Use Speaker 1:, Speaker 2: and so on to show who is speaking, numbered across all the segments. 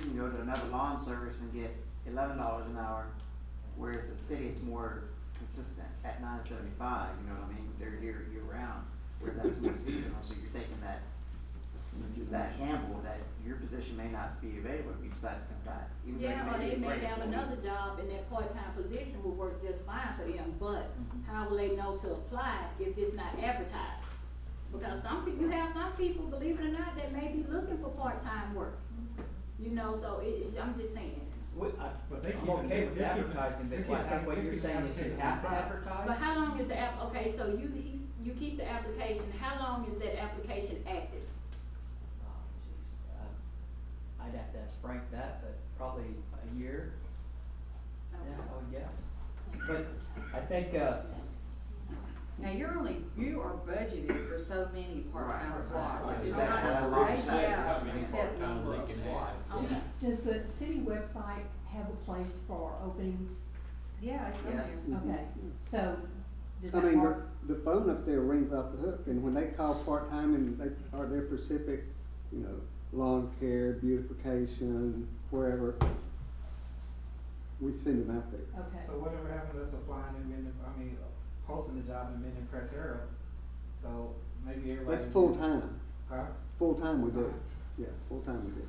Speaker 1: can go to another lawn service and get eleven dollars an hour, whereas the city is more consistent at nine seventy-five, you know what I mean? They're here year round, whereas that is more seasonal, so you're taking that, that gamble that your position may not be available if you decide to come back. even though you
Speaker 2: Yeah, or
Speaker 1: be
Speaker 2: they may
Speaker 1: great
Speaker 2: have
Speaker 1: employee.
Speaker 2: another job and that part-time position will work just fine for them, but
Speaker 1: Mhm.
Speaker 2: how will they know to apply if it's not advertised? Because some people, you have some people, believe it or not, that may be looking for part-time work, you know, so it, it- I'm just saying.
Speaker 3: We, I,
Speaker 4: But they
Speaker 3: I'm
Speaker 4: keep-
Speaker 3: okay with
Speaker 4: they keep-
Speaker 3: advertising,
Speaker 4: they
Speaker 3: but what, I
Speaker 4: keep-
Speaker 3: think what
Speaker 4: they
Speaker 3: you're
Speaker 4: keep
Speaker 3: saying is you
Speaker 4: advertising
Speaker 3: have to
Speaker 4: five.
Speaker 3: advertise?
Speaker 2: But how long is the app, okay, so you, he's, you keep the application, how long is that application active?
Speaker 3: Oh, jeez, uh, I'd have to ask Frank that, but probably a year, yeah, I would guess. But I think, uh,
Speaker 5: Now, you're only, you are budgeted for so many part-time
Speaker 1: Right.
Speaker 5: slots.
Speaker 1: Right.
Speaker 5: It's
Speaker 1: Exactly. How
Speaker 5: not,
Speaker 1: long
Speaker 5: they
Speaker 1: is that? How
Speaker 5: have
Speaker 1: many
Speaker 5: a set
Speaker 6: part-time
Speaker 5: number
Speaker 6: they
Speaker 5: of
Speaker 6: can
Speaker 5: slots.
Speaker 2: Okay.
Speaker 7: Does the city website have a place for openings?
Speaker 5: Yeah, it's on
Speaker 1: Yes.
Speaker 5: there.
Speaker 7: Okay, so does
Speaker 8: Mm-hmm. I
Speaker 7: that
Speaker 8: mean, the,
Speaker 7: work?
Speaker 8: the phone up there rings off the hook, and when they call part-time and they are there specific, you know, lawn care, beautification, wherever, we send them out there.
Speaker 7: Okay,
Speaker 4: So whatever happened to us applying and men, I mean, posting the job in men in Press Herald, so maybe everybody.
Speaker 8: That's
Speaker 4: just-
Speaker 8: full-time,
Speaker 4: Huh?
Speaker 8: full-time was it, yeah, full-time was it.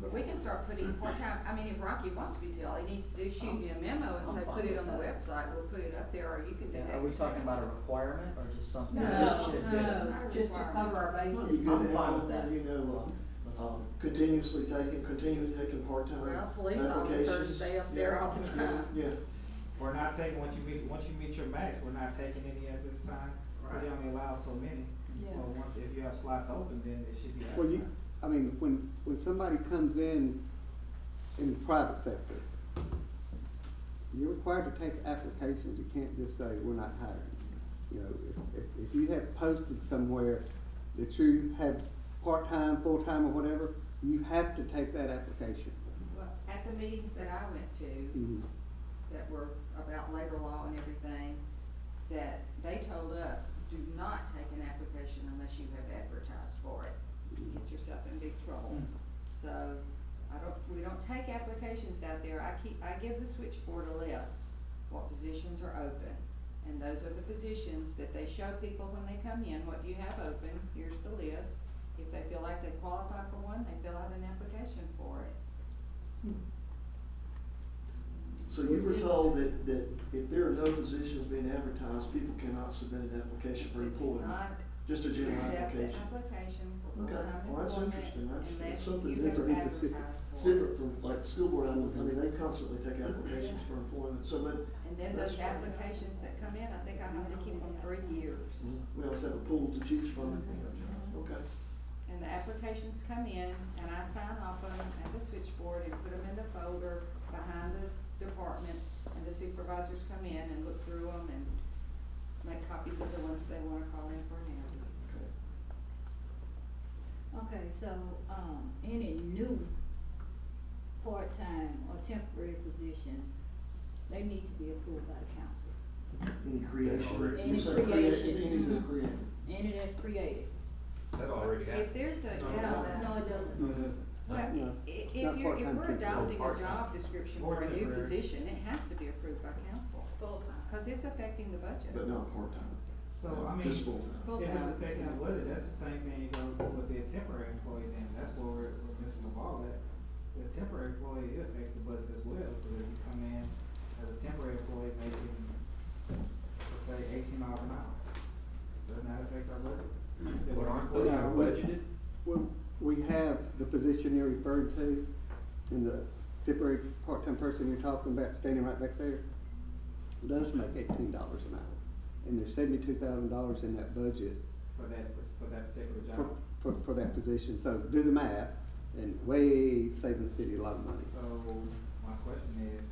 Speaker 5: But we can start putting part-time, I mean, if Rocky wants me to, all he needs to do is shoot me a memo and
Speaker 3: I'm
Speaker 5: say,
Speaker 3: fine
Speaker 5: put it
Speaker 3: with
Speaker 5: on the
Speaker 3: that.
Speaker 5: website, we'll put it up there, or you can do
Speaker 3: yeah,
Speaker 5: that.
Speaker 3: are we talking about a requirement or just something?
Speaker 7: no,
Speaker 3: Just should do it.
Speaker 7: no, just to cover our
Speaker 9: Might be good
Speaker 7: bases.
Speaker 9: to
Speaker 3: I'm fine
Speaker 9: have,
Speaker 3: with that.
Speaker 9: you know, uh, um, continuously taking, continually taking part-time
Speaker 5: Well, police
Speaker 9: applications.
Speaker 5: officers stay up there all the
Speaker 9: Yeah,
Speaker 5: time.
Speaker 9: Yeah,
Speaker 4: We're not taking, once you meet, once you meet your max, we're not taking any at this time, because they only allow so many. Well, once, if you have slots open, then it should be
Speaker 8: Well, you,
Speaker 4: advertised.
Speaker 8: I mean, when, when somebody comes in, in the private sector, you're required to take applications, you can't just say, we're not hiring. You know, if, if, if you have posted somewhere that you have part-time, full-time, or whatever, you have to take that application.
Speaker 5: Well, At the meetings that I went
Speaker 3: Mm-hmm.
Speaker 5: to,
Speaker 8: Mhm.
Speaker 5: that were about labor law and everything, that they told us, do not take an application unless you have advertised for it. You get yourself in big trouble. So, I don't, we don't take applications out there, I keep, I give the switchboard a list, what positions are open. And those are the positions that they show people when they come in, what do you have open, here's the list. If they feel like they qualify for one, they fill out an application for it.
Speaker 9: so you were told that, that if there are no positions being advertised, people cannot submit an application for
Speaker 5: So do
Speaker 9: employment,
Speaker 5: not
Speaker 9: just a general
Speaker 5: accept the
Speaker 9: application.
Speaker 5: application for
Speaker 9: Okay,
Speaker 5: full-time
Speaker 9: well, that's
Speaker 5: employment,
Speaker 9: interesting. That's-
Speaker 5: and
Speaker 9: that's
Speaker 5: that
Speaker 9: something
Speaker 5: you have
Speaker 9: different.
Speaker 8: It's different.
Speaker 5: advertised
Speaker 9: It's
Speaker 5: for it.
Speaker 9: different from, like, school board, I mean, they constantly take applications for employment, so, but,
Speaker 5: And then
Speaker 9: That's
Speaker 5: those
Speaker 9: right.
Speaker 5: applications that come in, I think I have to keep them three years.
Speaker 9: we always have a pool to choose from,
Speaker 5: Mm-hmm.
Speaker 9: okay.
Speaker 5: And the applications come in, and I sign off on them at the switchboard and put them in the folder behind the department, and the supervisors come in and look through them and make copies of the ones they wanna call in for an interview.
Speaker 10: Okay, so, um, any new part-time or temporary positions, they need to be approved by the council.
Speaker 9: Any creation.
Speaker 10: Any
Speaker 9: You said create-
Speaker 10: creation.
Speaker 9: Any that are created.
Speaker 10: Any that's created.
Speaker 6: That already happened.
Speaker 5: If there's a, yeah, that-
Speaker 10: No, it doesn't.
Speaker 8: No, it doesn't.
Speaker 5: Well, i-
Speaker 8: No,
Speaker 5: i- if
Speaker 8: not
Speaker 5: you're, if
Speaker 8: part-time
Speaker 5: we're
Speaker 8: people.
Speaker 5: adopting a
Speaker 6: Part-time.
Speaker 5: job description
Speaker 4: Or
Speaker 5: for a new
Speaker 4: temporary.
Speaker 5: position, it has to be approved by council. Full-time. Cause it's affecting the budget.
Speaker 9: But not part-time.
Speaker 4: So, I mean,
Speaker 9: Just full-time.
Speaker 4: if it's
Speaker 5: Full-time,
Speaker 4: affecting the
Speaker 5: yeah.
Speaker 4: budget, that's the same thing that goes with the temporary employee then, that's what we're, with Ms. LaValle, that the temporary employee, it affects the budget as well, because if you come in as a temporary employee making, let's say eighteen miles an hour, doesn't that affect our budget? If
Speaker 6: But
Speaker 4: we're
Speaker 6: aren't those
Speaker 4: employed-
Speaker 8: Yeah, but-
Speaker 6: budgeted?
Speaker 8: Well, we have the position you're referring to, and the temporary part-time person you're talking about standing right back there, does make eighteen dollars an hour. And there's seventy-two thousand dollars in that budget
Speaker 4: For that, for that particular
Speaker 8: for,
Speaker 4: job,
Speaker 8: for, for that position, so do the math, and way save the city a lot of money.
Speaker 4: so my question is,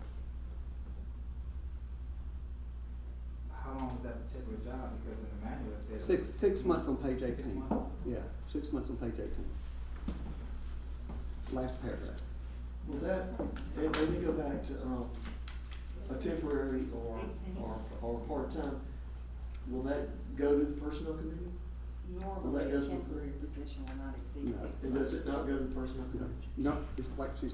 Speaker 4: how long is that particular job, because in the manual it says.
Speaker 8: Six, six months on page
Speaker 4: Six
Speaker 8: eighteen.
Speaker 4: months.
Speaker 8: Yeah, six months on page eighteen. Last paragraph.
Speaker 9: Well, that, and let me go back to, um, a temporary or, or, or part-time, will that go to the personnel committee?
Speaker 5: Normally, a
Speaker 9: doesn't-
Speaker 5: temporary position will not exceed
Speaker 8: No,
Speaker 5: six months.
Speaker 9: And does it not go to the personnel committee?
Speaker 8: No, it's like she